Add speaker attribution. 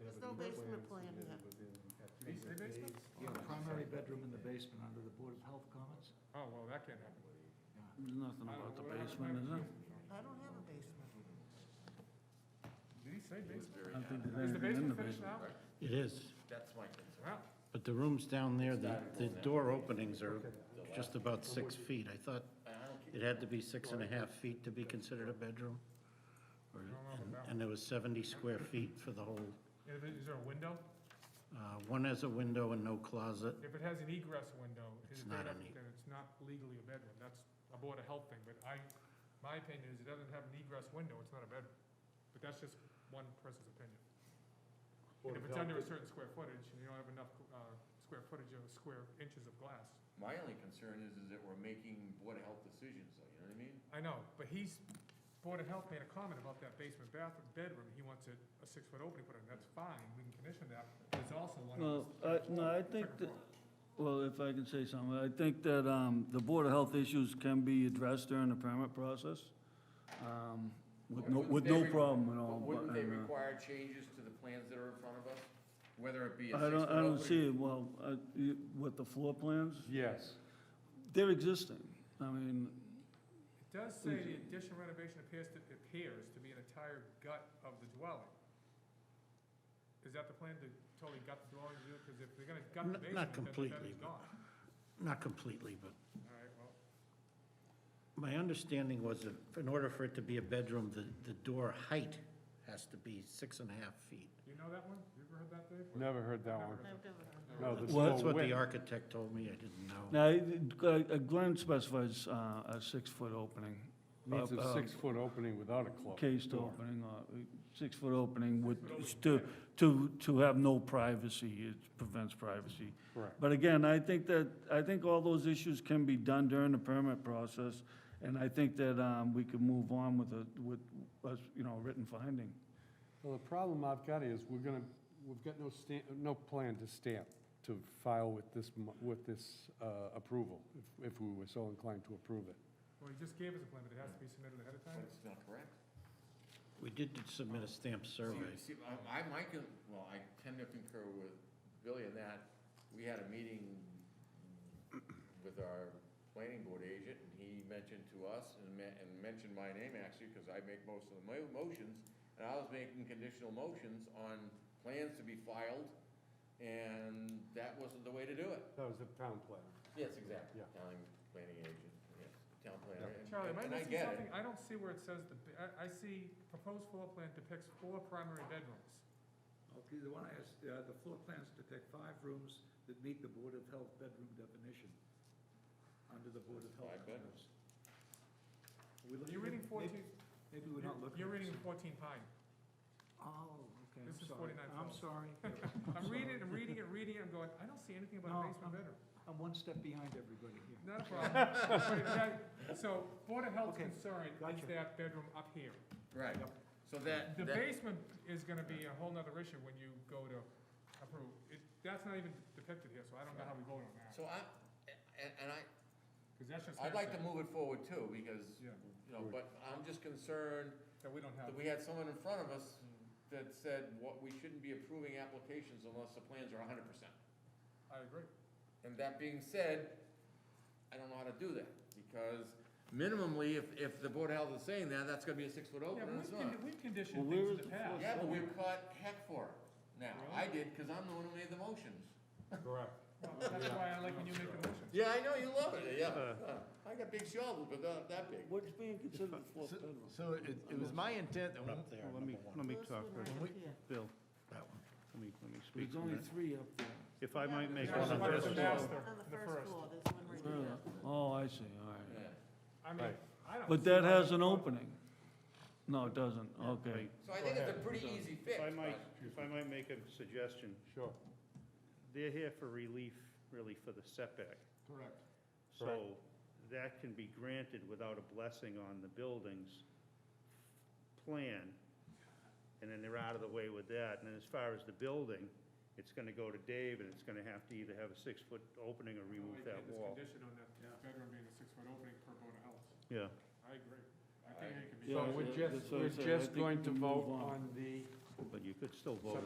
Speaker 1: There's no basement plan yet.
Speaker 2: Is there basement?
Speaker 3: Yeah, primary bedroom in the basement under the Board of Health comments?
Speaker 2: Oh, well, that can't happen.
Speaker 4: There's nothing
Speaker 2: I don't know
Speaker 4: about the
Speaker 2: what happened
Speaker 4: basement,
Speaker 2: to the
Speaker 4: is there?
Speaker 2: basement, John?
Speaker 1: I don't have a basement.
Speaker 2: Did he say basement?
Speaker 4: I don't think there's
Speaker 2: Is the
Speaker 4: anything in the
Speaker 2: basement finished
Speaker 4: basement.
Speaker 2: now?
Speaker 5: It is,
Speaker 6: That's my concern.
Speaker 2: Well,
Speaker 5: but the rooms down there, the, the door openings are just about six feet. I thought it had to be six and a half feet to be considered a bedroom. Or- and- And there was 70 square feet for the whole,
Speaker 2: is it- is there a window?
Speaker 5: uh, one has a window and no closet.
Speaker 2: If it has an egress window, is
Speaker 5: It's
Speaker 2: it big
Speaker 5: not
Speaker 2: enough,
Speaker 5: an e-
Speaker 2: then it's not legally a bedroom. That's a Board of Health thing, but I, my opinion is it doesn't have an egress window, it's not a bedroom. But that's just one person's opinion. And if it's under a certain square footage, and you don't have enough, uh, square footage of square inches of glass,
Speaker 6: My only concern is, is that we're making Board of Health decisions, though, you know what
Speaker 2: I
Speaker 6: I mean?
Speaker 2: know, but he's, Board of Health made a comment about that basement bathroom, bedroom, he wants it a six-foot opening put in, that's fine, we can condition that. There's also one
Speaker 4: Well,
Speaker 2: on the
Speaker 4: I,
Speaker 2: third
Speaker 4: no, I
Speaker 2: floor,
Speaker 4: think
Speaker 2: second
Speaker 4: that,
Speaker 2: floor.
Speaker 4: well, if I can say something, I think that, um, the Board of Health issues can be addressed during the permit process, um, with no,
Speaker 6: Wouldn't
Speaker 4: with
Speaker 6: they
Speaker 4: no
Speaker 6: re-
Speaker 4: problem at
Speaker 6: but
Speaker 4: all.
Speaker 6: Wouldn't
Speaker 4: but,
Speaker 6: they
Speaker 4: uh,
Speaker 6: require changes to the plans that are in front of us? Whether it be a
Speaker 4: I
Speaker 6: six-foot
Speaker 4: don't, I don't
Speaker 6: opening-
Speaker 4: see, it. well, uh, you- with the floor plans,
Speaker 3: Yes.
Speaker 4: they're existing. I mean,
Speaker 2: It does say the addition renovation appears to, appears to be an entire gut of the dwelling. Is that the plan to totally gut the dwelling, because if they're gonna gut the basement, then the
Speaker 5: Not- not completely,
Speaker 2: bedroom's
Speaker 5: but-
Speaker 2: gone.
Speaker 5: Not completely, but
Speaker 2: All right, well,
Speaker 5: my understanding was that in order for it to be a bedroom, the, the door height has to be six and a half feet.
Speaker 2: you know that one? You ever heard that, Dave?
Speaker 3: Never heard that one.
Speaker 1: I've never heard of
Speaker 3: No, the
Speaker 4: Well,
Speaker 5: That's
Speaker 3: door
Speaker 5: what the
Speaker 3: width.
Speaker 5: architect told me, I didn't know.
Speaker 4: now, uh, Glenn specifies, uh, a six-foot opening.
Speaker 3: Needs
Speaker 4: Uh,
Speaker 3: a
Speaker 4: uh,
Speaker 3: six-foot opening without a closed
Speaker 4: cased
Speaker 3: door.
Speaker 4: opening, or six-foot opening with, to, to, to have no privacy, it prevents privacy.
Speaker 3: Correct.
Speaker 4: But again, I think that, I think all those issues can be done during the permit process, and I think that, um, we can move on with a, with, us, you know, written finding.
Speaker 3: Well, the problem I've got is, we're gonna, we've got no stamp, no plan to stamp, to file with this, mo- with this uh, approval, if- if we were so inclined to approve it.
Speaker 2: Well, he just gave us a plan, but it has to be submitted ahead of
Speaker 6: But
Speaker 2: time?
Speaker 6: it's not correct.
Speaker 5: We did submit a stamped survey.
Speaker 6: See, see, I, I might, con- well, I tend to concur with Billy in that, we had a meeting with our planning board agent, and he mentioned to us, and me- and mentioned my name actually, because I make most of the mo- motions, and I was making conditional motions on plans to be filed, and that wasn't the way to do it.
Speaker 3: That was the town plan.
Speaker 6: Yes, exactly.
Speaker 3: Yeah.
Speaker 6: Town planning agent, yes, town planner. and-
Speaker 2: Charlie, am I
Speaker 6: and I
Speaker 2: missing
Speaker 6: get it.
Speaker 2: something? I don't see where it says the, I, I see proposed floor plan depicts four primary bedrooms.
Speaker 7: Okay, the one I asked, uh, the floor plans depict five rooms that meet the Board of Health bedroom definition under the Board of Health.
Speaker 6: Five bedrooms.
Speaker 7: Are we looking
Speaker 2: You're
Speaker 7: at-
Speaker 2: reading
Speaker 7: maybe-
Speaker 2: fourteen,
Speaker 7: Maybe we're not looking.
Speaker 2: you're
Speaker 7: at
Speaker 2: reading
Speaker 7: this.
Speaker 2: fourteen pine.
Speaker 7: Oh, okay, I'm
Speaker 2: This is
Speaker 7: sorry.
Speaker 2: 49
Speaker 7: I'm
Speaker 2: twelve.
Speaker 7: sorry.
Speaker 2: I'm reading, it, I'm reading it, reading it, I'm going, I don't see anything about a
Speaker 7: No,
Speaker 2: basement
Speaker 7: I'm-
Speaker 2: bedroom.
Speaker 7: I'm one step behind everybody here.
Speaker 2: Not a problem. But if that- So Board of Health's
Speaker 7: Okay,
Speaker 2: concern is
Speaker 7: gotcha.
Speaker 2: that bedroom up here.
Speaker 6: Right, so that,
Speaker 2: The
Speaker 6: that,
Speaker 2: basement is gonna be a whole nother issue when you go to approve. It, that's not even depicted here, so I don't know how we vote on that.
Speaker 6: so I, and, and I,
Speaker 2: Because that's just.
Speaker 6: I'd like to
Speaker 2: hearsay
Speaker 6: move it forward too, because,
Speaker 2: Yeah.
Speaker 6: you know, but I'm just concerned
Speaker 2: That we don't have. Mm,
Speaker 6: that we had someone in front of us that said, what, we shouldn't be approving applications unless the plans are hundred percent.
Speaker 2: I agree.
Speaker 6: And that being said, I don't know how to do that, because minimally, if, if the Board of Health is saying that, that's gonna be a six-foot
Speaker 2: Yeah,
Speaker 6: opening, and
Speaker 2: we've,
Speaker 6: it's not.
Speaker 2: con- we've conditioned
Speaker 4: Well, where
Speaker 2: things in
Speaker 4: is
Speaker 2: the
Speaker 4: the
Speaker 2: past.
Speaker 6: Yeah, but we've caught heck for it now. I did, because I'm the one who made the motions.
Speaker 3: Correct.
Speaker 2: Well, That's why I like when you make the motions.
Speaker 6: Yeah, I know, you love it, Uh. yeah. I got big shoulders, but not that big.
Speaker 4: What's being considered a floor bedroom?
Speaker 8: So it, it was my intent, that
Speaker 5: Up there,
Speaker 8: when- let me,
Speaker 5: number one.
Speaker 8: let me
Speaker 1: This
Speaker 8: talk,
Speaker 1: one
Speaker 8: first.
Speaker 1: right here.
Speaker 8: Bill,
Speaker 5: That one.
Speaker 8: let me, let me speak.
Speaker 4: There's
Speaker 8: on
Speaker 4: only
Speaker 8: that.
Speaker 4: three up there.
Speaker 8: If I might make
Speaker 2: There's
Speaker 8: one
Speaker 2: one at the
Speaker 8: suggestion.
Speaker 2: master,
Speaker 1: On the
Speaker 2: the
Speaker 1: first
Speaker 2: first.
Speaker 1: floor, there's one right here.
Speaker 4: Oh, I see, all right.
Speaker 6: Yeah.
Speaker 2: I mean, I don't.
Speaker 4: But that has an opening. No, it doesn't, okay.
Speaker 6: So I think it's a pretty easy fix.
Speaker 8: If I might,
Speaker 6: but-
Speaker 8: if I might make a suggestion,
Speaker 3: Sure.
Speaker 8: they're here for relief, really for the setback.
Speaker 3: Correct.
Speaker 8: So that can be granted without a blessing on the building's plan. And then they're out of the way with that. And then as far as the building, it's gonna go to Dave and it's gonna have to either have a six-foot opening or remove that
Speaker 2: It's
Speaker 8: wall.
Speaker 2: conditioned on that bedroom being a six-foot opening per Board of Health.
Speaker 8: Yeah.
Speaker 2: I agree. I think it can be.
Speaker 3: So we're
Speaker 4: Yeah,
Speaker 3: just,
Speaker 4: that's what I
Speaker 3: we're
Speaker 4: said. I
Speaker 3: just
Speaker 4: think
Speaker 3: going
Speaker 4: we
Speaker 3: to
Speaker 4: move
Speaker 3: vote
Speaker 4: on.
Speaker 3: on the
Speaker 8: But you could still vote.